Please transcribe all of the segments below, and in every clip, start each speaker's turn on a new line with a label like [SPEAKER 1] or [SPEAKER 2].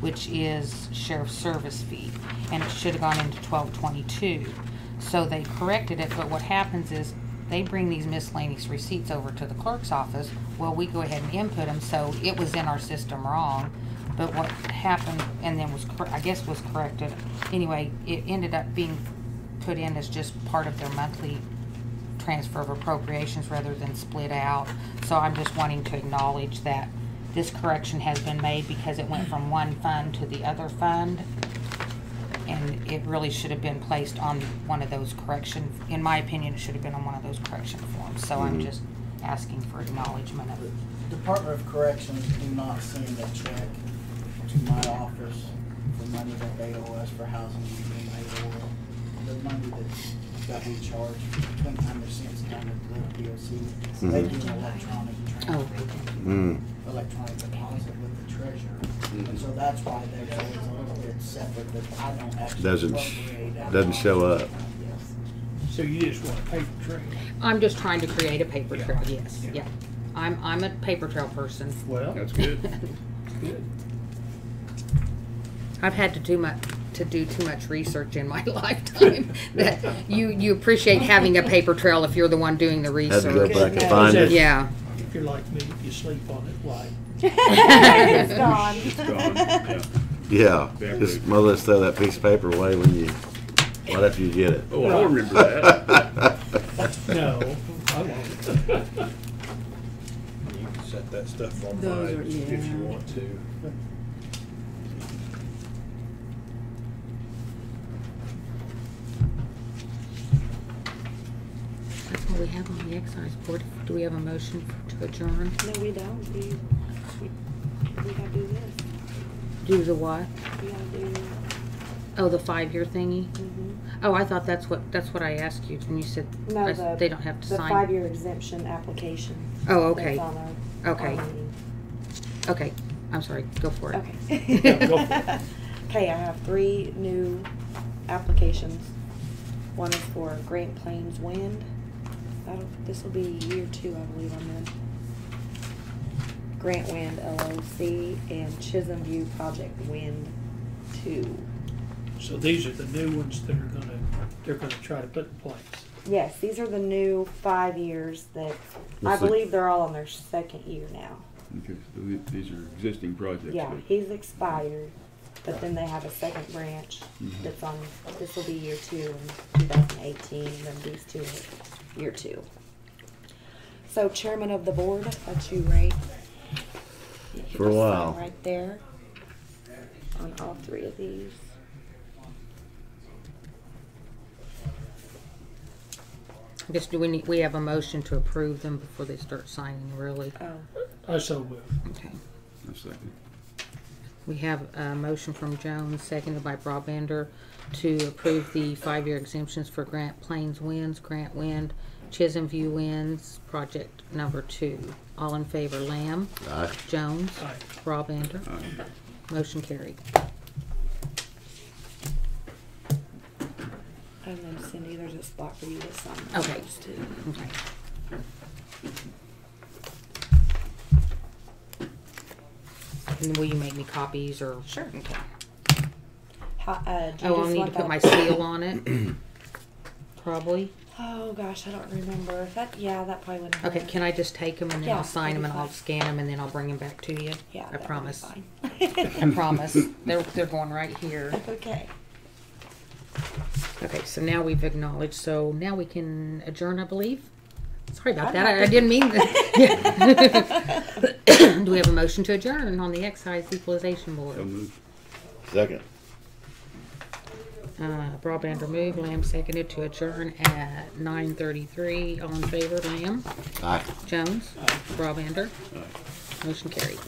[SPEAKER 1] which is sheriff's service fee, and it should have gone into twelve twenty-two. So they corrected it, but what happens is, they bring these miscellaneous receipts over to the clerk's office, well, we go ahead and input them, so it was in our system wrong. But what happened, and then was, cor- I guess was corrected, anyway, it ended up being put in as just part of their monthly transfer of appropriations rather than split out. So I'm just wanting to acknowledge that this correction has been made because it went from one fund to the other fund. And it really should have been placed on one of those correction, in my opinion, it should have been on one of those correction forms. So I'm just asking for acknowledgement of it.
[SPEAKER 2] Department of Corrections do not send a check to my office for money that they owe us for housing and they owe the money that's got in charge, twenty-nine percent is counted to the DOC.
[SPEAKER 3] Mm-hmm.
[SPEAKER 2] So They do an electronic
[SPEAKER 1] Oh.
[SPEAKER 2] transfer,
[SPEAKER 3] Mm.
[SPEAKER 2] electronic deposit with the treasurer.
[SPEAKER 3] Mm-hmm.
[SPEAKER 2] And so that's why there's always a little bit separate that I don't actually.
[SPEAKER 3] Doesn't sh-
[SPEAKER 2] appropriate out of
[SPEAKER 3] doesn't
[SPEAKER 2] my-
[SPEAKER 3] show up.
[SPEAKER 2] Yes.
[SPEAKER 4] So you just want a paper trail?
[SPEAKER 1] I'm just trying to create a paper trail, yes,
[SPEAKER 4] Yeah.
[SPEAKER 1] yeah. I'm, I'm a paper trail person.
[SPEAKER 4] Well,
[SPEAKER 5] That's good.
[SPEAKER 4] good.
[SPEAKER 1] I've had to do my, to do too much research in my lifetime that you, you appreciate having a paper trail if you're the one doing the
[SPEAKER 3] Had to go
[SPEAKER 1] research.
[SPEAKER 3] back and find it.
[SPEAKER 1] Yeah.
[SPEAKER 4] If you're like me, if you sleep on it, why?
[SPEAKER 6] It's gone.
[SPEAKER 5] It's gone. Yeah.
[SPEAKER 3] Yeah, just more or less throw that piece of paper away when you, right after you get it.
[SPEAKER 5] Oh, I remember that.
[SPEAKER 4] No, I won't.
[SPEAKER 7] You can set that stuff
[SPEAKER 6] Those are-
[SPEAKER 7] online if you
[SPEAKER 6] yeah.
[SPEAKER 7] want to.
[SPEAKER 1] That's what we have on the excise board. Do we have a motion to adjourn?
[SPEAKER 6] No, we don't. We, we, we gotta do this.
[SPEAKER 1] Do the what?
[SPEAKER 6] We gotta do,
[SPEAKER 1] Oh, the five-year thingy?
[SPEAKER 6] mhm.
[SPEAKER 1] Oh, I thought that's what, that's what I asked you and you said
[SPEAKER 6] No,
[SPEAKER 1] I-
[SPEAKER 6] the-
[SPEAKER 1] they don't have to
[SPEAKER 6] the
[SPEAKER 1] sign.
[SPEAKER 6] five-year exemption application.
[SPEAKER 1] Oh,
[SPEAKER 6] that's
[SPEAKER 1] okay,
[SPEAKER 6] on our-
[SPEAKER 1] Okay.
[SPEAKER 6] our meeting.
[SPEAKER 1] okay. I'm sorry, go for it. Yeah,
[SPEAKER 4] go
[SPEAKER 6] Okay. Okay, I have three new applications. One is for Grant Plains Wind. That'll, this'll be year two, I believe, on this. Grant Wind LLC and Chisholm View Project Wind Two.
[SPEAKER 4] So these are the new ones that are gonna, they're gonna try to put in place.
[SPEAKER 6] Yes, these are the new five years that, I
[SPEAKER 3] Looks like-
[SPEAKER 6] believe they're all on their second year now.
[SPEAKER 5] Okay, so th- These are existing projects.
[SPEAKER 6] Yeah,
[SPEAKER 5] but-
[SPEAKER 6] he's expired, but then they have a second branch
[SPEAKER 3] Mm-hmm.
[SPEAKER 6] that's on, this will be year two in two thousand eighteen, then these two are year two. So chairman of the board, that's you, right? You
[SPEAKER 3] For a
[SPEAKER 6] just sign
[SPEAKER 3] while.
[SPEAKER 6] Right there, on all three of these.
[SPEAKER 1] I guess do we need, we have a motion to approve them before they start signing, really?
[SPEAKER 6] Oh,
[SPEAKER 4] I so will.
[SPEAKER 1] Okay.
[SPEAKER 5] A second.
[SPEAKER 1] We have a motion from Jones, seconded by Broadbender, to approve the five-year exemptions for Grant Plains Winds, Grant Wind, Chisholm View Winds, project number two. All in favor, Lamb?
[SPEAKER 3] Aye.
[SPEAKER 1] Jones?
[SPEAKER 4] Aye.
[SPEAKER 1] Broadbender?
[SPEAKER 5] Aye.
[SPEAKER 1] Motion carried.
[SPEAKER 6] and then Cindy, there's a spot for you to sign.
[SPEAKER 1] Okay.
[SPEAKER 6] those too.
[SPEAKER 1] Okay. And will you make me copies or? Sure.
[SPEAKER 6] How, uh, do you
[SPEAKER 1] Oh, I'll
[SPEAKER 6] just
[SPEAKER 1] need to
[SPEAKER 6] want
[SPEAKER 1] put my
[SPEAKER 6] that?
[SPEAKER 1] seal on it, probably.
[SPEAKER 6] Oh, gosh, I don't remember. That, yeah, that probably wouldn't.
[SPEAKER 1] Okay,
[SPEAKER 6] hurt.
[SPEAKER 1] can I just take them and then
[SPEAKER 6] Yeah,
[SPEAKER 1] I'll sign them
[SPEAKER 6] that'd
[SPEAKER 1] and
[SPEAKER 6] be
[SPEAKER 1] I'll
[SPEAKER 6] fine.
[SPEAKER 1] scan them and then I'll bring them back to you?
[SPEAKER 6] Yeah.
[SPEAKER 1] I
[SPEAKER 6] that would be
[SPEAKER 1] promise.
[SPEAKER 6] fine.
[SPEAKER 1] I promise. They're, they're going right here.
[SPEAKER 6] Okay.
[SPEAKER 1] Okay, so now we've acknowledged, so now we can adjourn, I believe? Sorry about
[SPEAKER 6] I'm
[SPEAKER 1] that,
[SPEAKER 6] not
[SPEAKER 1] I I didn't mean that. Yeah. Do we have a motion to adjourn on the excise equalization
[SPEAKER 5] So
[SPEAKER 1] board?
[SPEAKER 5] moved.
[SPEAKER 3] Second.
[SPEAKER 1] Uh, Broadband removed, Lamb seconded to adjourn at nine thirty-three. All in favor, Lamb?
[SPEAKER 3] Aye.
[SPEAKER 1] Jones? Broadbander? Motion carried.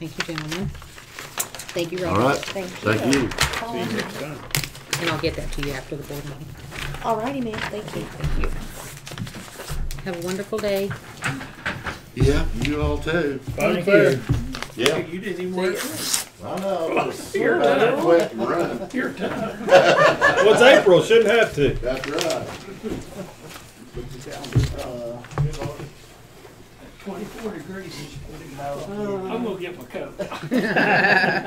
[SPEAKER 1] Thank you, gentlemen. Thank you,
[SPEAKER 3] All right.
[SPEAKER 1] Robert.
[SPEAKER 3] Thank you.
[SPEAKER 5] See you next time.
[SPEAKER 1] And I'll get that to you after the board meeting.
[SPEAKER 6] Alrighty, ma'am. Thank you. Thank you.
[SPEAKER 1] Have a wonderful day.
[SPEAKER 3] Yeah, you all too.
[SPEAKER 4] Thank you.
[SPEAKER 3] Yeah.
[SPEAKER 4] You didn't even wear it.
[SPEAKER 3] I know. Just slip out of it quick and run.
[SPEAKER 4] Your time.
[SPEAKER 7] Well, it's April, shouldn't have to.
[SPEAKER 3] That's right.
[SPEAKER 4] Twenty-four degrees is what it is. I'm gonna get my coat.